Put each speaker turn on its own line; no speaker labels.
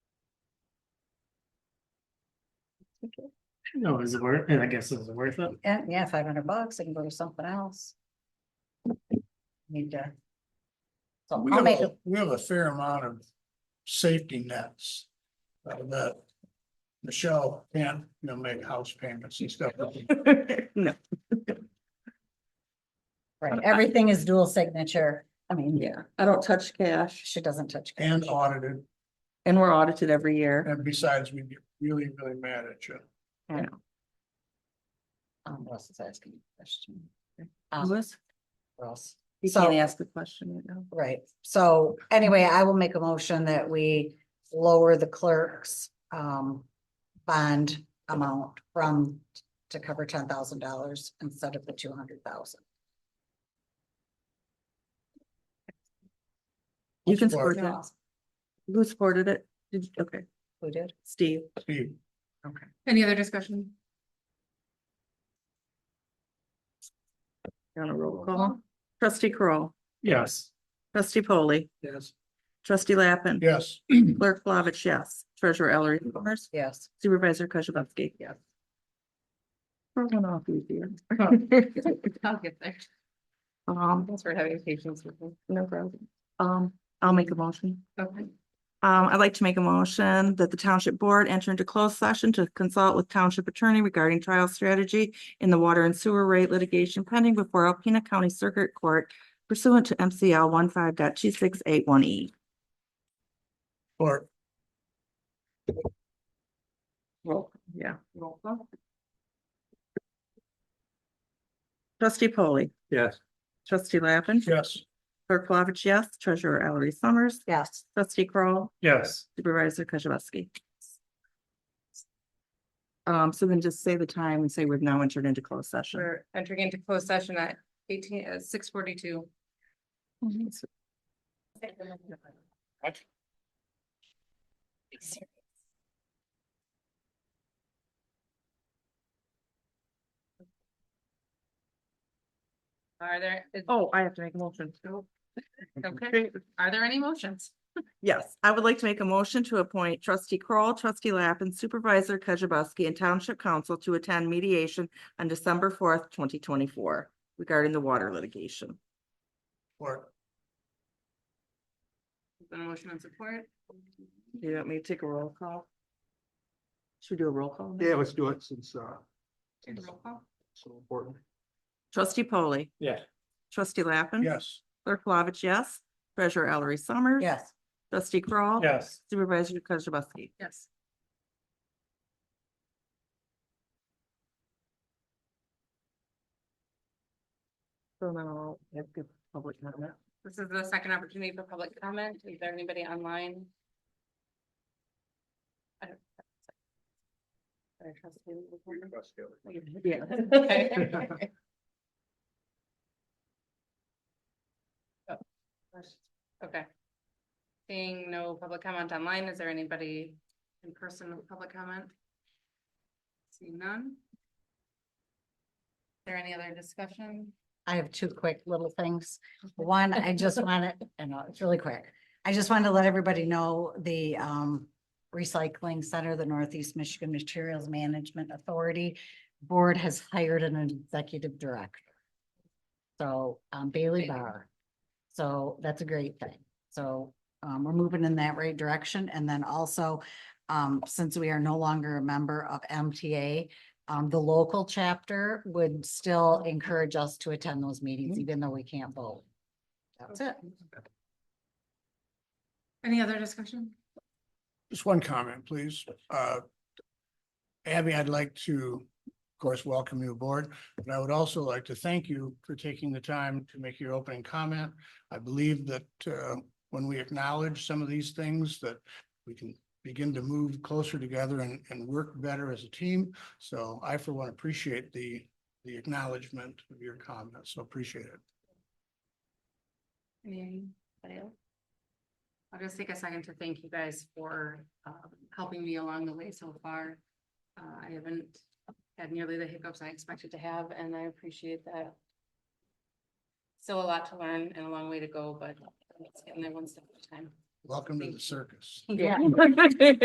No, is it worth, I guess it's worth it.
Yeah, yeah, five hundred bucks, I can go to something else. Need to. So
We
I'll
have,
make,
a-
a-
we have a fair amount of safety nets. uh, That Michelle can, you know, make house payments and stuff.
No,
right, everything is dual signature, I mean,
yeah, I don't touch cash
she doesn't touch.
And audited,
and we're audited every year.
and besides, we get really, really mad at you.
Um, what else is asking a question? Um,
Louis,
what else?
you
So-
can't ask the question right now.
Right, so anyway, I will make a motion that we lower the clerk's um bond amount from to cover ten thousand dollars instead of the two hundred thousand.
You can
Support.
support that. Who supported it? Did, you- okay,
Who did?
Steve.
Steve,
Any other discussion?
On a roll call. Trustee Kroll,
Yes.
trustee Polly,
yes,
trustee Lappin.
yes.
Clerk Flavich, yes. Treasurer Ellery Summers,
Yes.
Supervisor Kozibowski. Yes. We're going off easier.
I'll get there.
Um,
Thanks for having patience with me.
no problem. Um, I'll make a motion.
Okay.
Um, I'd like to make a motion that the township board enter into closed session to consult with township attorney regarding trial strategy in the water and sewer rate litigation pending before Alpena County Circuit Court pursuant to MCL one E.
Or,
Roll, yeah. Roll call. Trustee Polly,
Yes.
trustee Lappin,
yes.
clerk Flavich, yes, treasurer Ellery Summers,
Yes.
trustee Kroll,
Yes.
Supervisor Kozibowski. Um, so then just say the time and say we've now entered into closed session.
We're entering into closed session at eighteen, uh, six forty-two.
Mm-hmm.
Are there, is- Oh.
Oh, I have to make a motion.
okay, are there any motions?
Yes, I would like to make a motion to appoint trustee Kroll, trustee Lappin, supervisor Kozibowski and township council to attend mediation on December fourth, twenty twenty-four regarding the water litigation.
Or,
Is there a motion and support?
You want me to take a roll call? Should we do a roll call?
Yeah, let's do it since, uh,
Roll call?
so important.
Trustee polley
Yeah.
trustee Lappin.
yes.
Clerk Flavich, yes. Treasurer Ellery Summers.
Yes.
Trustee Kroll.
Yes.
Supervisor Kozibowski.
Yes.
So now, we have good public comment.
This is the second opportunity for public comment. Is there anybody online? I don't. I trust you.
Yeah.
Okay. Okay. Seeing no public comment online, is there anybody in person with public comment? Seeing none? Is there any other discussion?
I have two quick little things. One, I just want to, I know, it's really quick. I just wanted to let everybody know the um recycling center, the Northeast Michigan Materials Management Authority Board has hired an executive director. So um Bailey Barr. So that's a great thing. So um we're moving in that right direction. And then also um since we are no longer a member of MTA, um, the local chapter would still encourage us to attend those meetings, even though we can't vote. That's it.
Any other discussion?
Just one comment, please. Uh, Abby, I'd like to, of course, welcome you aboard, but I would also like to thank you for taking the time to make your opening comment. I believe that uh, when we acknowledge some of these things, that we can begin to move closer together and, and work better as a team. So I, for one, appreciate the, the acknowledgement of your comments, so appreciate it.
Anybody else? I'll just take a second to thank you guys for um, helping me along the way so far. Uh, I haven't had nearly the hiccups I expected to have, and I appreciate that. Still a lot to learn and a long way to go, but it's getting there one step at a time.
Welcome to the
Thank you.
circus.
Yeah.